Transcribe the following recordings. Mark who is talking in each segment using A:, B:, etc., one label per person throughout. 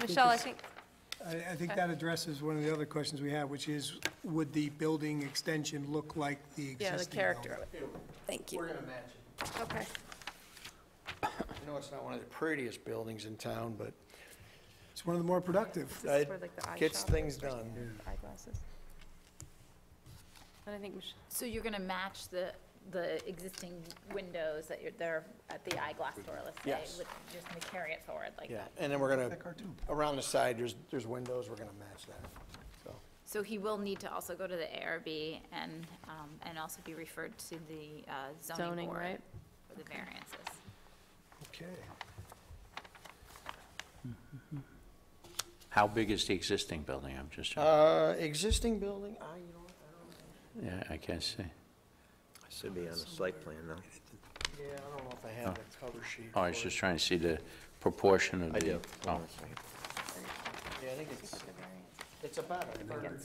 A: Michelle, I think,
B: I, I think that addresses one of the other questions we have, which is, would the building extension look like the existing
A: yeah, the character
B: building?
A: of it. Thank you.
C: We're gonna match it.
A: Okay.
C: I know it's not one of the prettiest buildings in town, but
B: It's one of the more productive.
A: This is
C: That
A: for like the eye
C: gets
A: shop,
C: things done.
A: eyeglasses. And I think, Mich-
D: So you're gonna match the, the existing windows that you're, they're at the eyeglass store, let's say?
C: Yes.
D: with- Just gonna carry it forward like
C: Yeah,
D: that?
C: and then we're gonna, around the side, there's, there's windows, we're gonna match that, so.
D: So he will need to also go to the ARB and, um, and also be referred to the uh, zoning
E: Zoning,
D: board
E: right?
D: for the variances.
C: Okay.
F: How big is the existing building? I'm just, trying-
C: Uh, existing building, I, you know, what,
F: yeah, I can't see.
G: Should be on the site plan, though.
C: I don't, yeah, I don't know if I have the cover sheet.
F: Oh, I was
C: for it.
F: just trying to see the proportion of the. Oh,
C: Yeah, I think it's, it's about a third.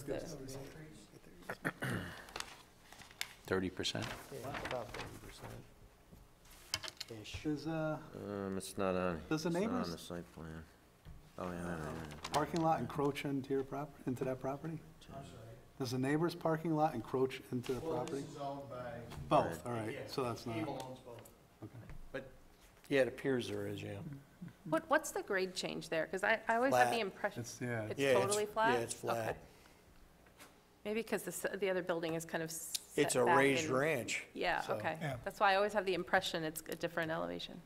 F: thirty percent?
C: Yeah, about thirty percent. Ish.
H: Does, uh,
G: Um, it's not on.
H: Does the
G: it's not
H: neighbors-
G: on the site plan. Oh, yeah, I know, yeah.
H: parking lot encroach into your prop, into that property? Does the neighbor's parking lot encroach into the property?
C: owned by.
H: Both, all right, so that's not,
C: Abel owns both. But, yeah, it appears there is, yeah.
A: Mm-hmm. what, what's the grade change there? Because I, I always have
C: Flat.
A: the impression,
H: it's, yeah,
A: It's
C: Yeah,
A: totally flat?
C: Yeah, it's flat.
A: Okay. maybe because the, s- the other building is kind of
C: It's a
A: set back
C: raised
A: and-
C: ranch.
A: Yeah,
C: so-
A: okay.
B: Yeah.
A: That's why I always have the impression it's a different elevation.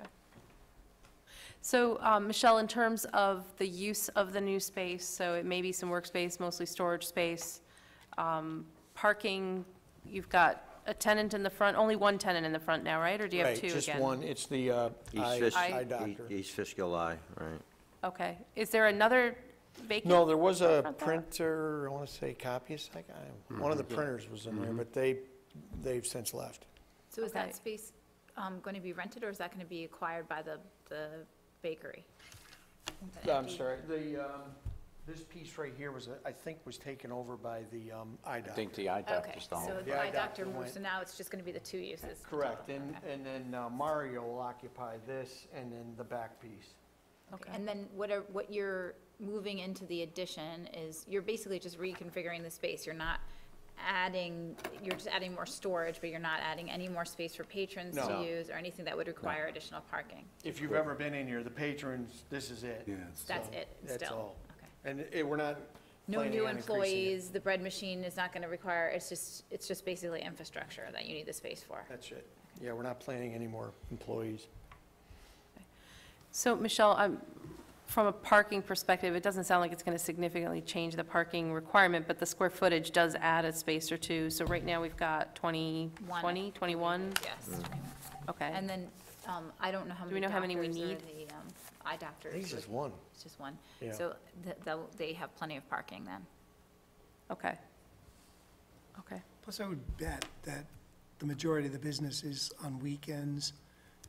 A: Okay. So, um, Michelle, in terms of the use of the new space, so it may be some workspace, mostly storage space, um, parking, you've got a tenant in the front, only one tenant in the front now, right? Or do you have
C: Right,
A: two again?
C: just one, it's the uh,
G: East
C: eye
G: Fish,
C: eye
G: E-
C: doctor.
G: East Fishkill Eye, right.
A: Okay. Is there another vacant?
C: No, there was a
A: Front door.
C: printer, I want to say copyist, I got him. one of the printers was in there, but they, they've since left.
D: So is
A: Okay.
D: that space um, gonna be rented, or is that gonna be acquired by the, the bakery? The
C: I'm
D: empty-
C: sorry, the, um, this piece right here was, uh, I think, was taken over by the um, eye
F: I
C: doctor.
F: think the eye
D: Okay,
F: doctor's the
D: so
F: home.
D: the
C: Yeah, I
D: eye
C: got
D: doctor
C: the one.
D: moved, so now it's just gonna be the two uses.
C: Correct,
D: total,
C: and,
D: okay.
C: and then uh, Mario will occupy this and then the back piece.
A: Okay.
D: And then what are, what you're moving into the addition is, you're basically just reconfiguring the space. You're not adding, you're just adding more storage, but you're not adding any more space for patrons to
C: No.
D: use or anything that would require additional parking.
C: If you've ever been in here, the patrons, this is it.
H: yeah, it's-
D: That's
C: So,
D: it, still?
C: that's all.
D: Okay.
C: And it, we're not
D: No
C: planning
D: new
C: on increasing it.
D: employees, the bread machine is not gonna require, it's just, it's just basically infrastructure that you need the space for.
C: That's it. Yeah, we're not planning any more employees.
A: So, Michelle, um, from a parking perspective, it doesn't sound like it's going to significantly change the parking requirement, but the square footage does add a space or two. So right now, we've got 20,
D: One.
A: 20, 21?
D: Yes.
C: Mm-hmm.
A: Okay.
D: And then, um, I don't know how many
A: Do we know how many we
D: doctors or
A: need?
D: the, um, Eye doctors.
C: This
D: would
C: is one.
D: It's just one.
C: Yeah.
D: So th- they'll- they have plenty of parking then.
A: Okay. Okay.
B: Plus, I would bet that the majority of the business is on weekends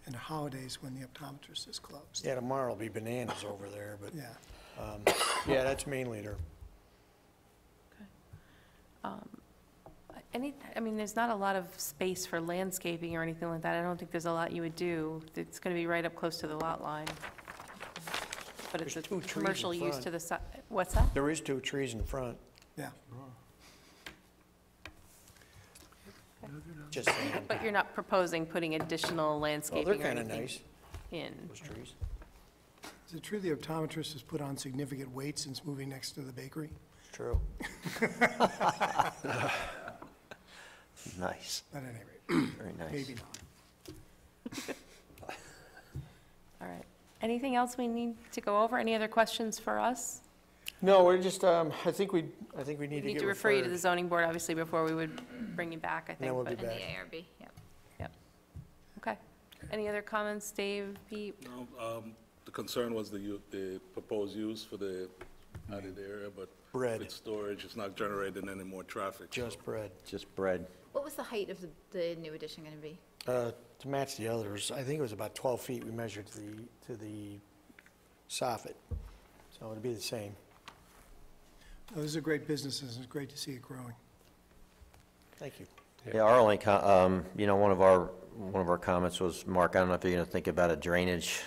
B: and holidays when the optometrist is closed.
C: Yeah, tomorrow will be bananas over there, but,
B: Yeah.
C: um, yeah, that's mainly their
A: Any, I mean, there's not a lot of space for landscaping or anything like that. I don't think there's a lot you would do. It's going to be right up close to the lot line. But it's a
C: There's two trees in
A: commercial use
C: front.
A: to the side. What's that?
C: There is two trees in front,
B: Yeah.
C: just saying.
A: But you're not proposing putting additional
C: Well,
A: landscaping
C: they're
A: or
C: kind of
A: anything
C: nice,
A: in?
C: those trees.
B: Is it true the optometrist has put on significant weight since moving next to the bakery?
C: It's True.
G: Nice,
B: But at any rate,
G: very nice.
B: maybe not.
A: All right. Anything else we need to go over? Any other questions for us?
C: No, we're just, um, I think we, I think we need to
A: Need
C: get
A: to refer you to
C: referred.
A: the zoning board, obviously, before we would bring you back, I think.
C: then we'll be
A: but-
D: And the
C: back.
D: ARB, yep.
A: Okay. Any other comments, Dave, Pete?
I: No, um, The concern was the, u- the proposed use for the added area, but
C: Bread.
I: with storage, it's not generating any more traffic. so-
C: Just bread.
G: Just bread.
D: What was the height of the, the new addition gonna be?
C: Uh, to match the others, I think it was about twelve feet we measured to the, to the soffit. So it'd be the same.
B: Those are great businesses, and it's great to see it growing.
C: Thank you.
G: Yeah, our only, co- um, you know, one of our, one of our comments was, Mark, I don't know if you're gonna think about a drainage